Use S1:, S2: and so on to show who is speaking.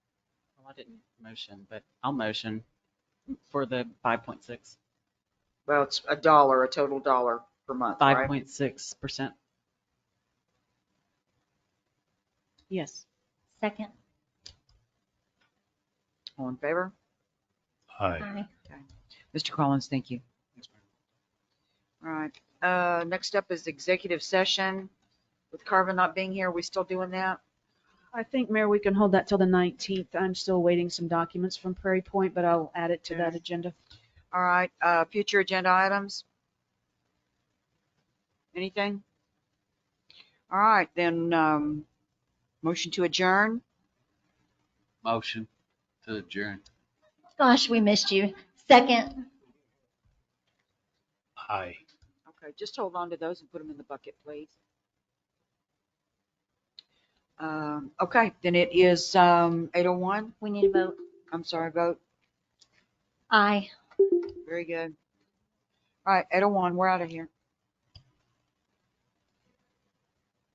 S1: I didn't motion, but I'll motion for the 5.6,
S2: Well, it's a dollar, a total dollar per month, right?
S1: 5.6%.
S3: Yes. Second.
S2: All in favor?
S4: Aye.
S2: Mr. Collins, thank you. All right. Uh, next up is executive session. With Carvin not being here, we still doing that?
S3: I think, Mayor, we can hold that till the 19th. I'm still waiting some documents from Prairie Point, but I'll add it to that
S2: Okay.
S3: agenda.
S2: All right, uh, future agenda items? Anything? All right, then, um, motion to adjourn.
S5: Motion to adjourn.
S6: Gosh, we missed you. Second.
S4: Aye.
S2: Okay, just hold on to those and put them in the bucket, please. Um, okay, then it is, um, eight oh one.
S6: We need a vote.
S2: I'm sorry, vote.
S6: Aye.
S2: Very good. All right, eight oh one, we're out of here.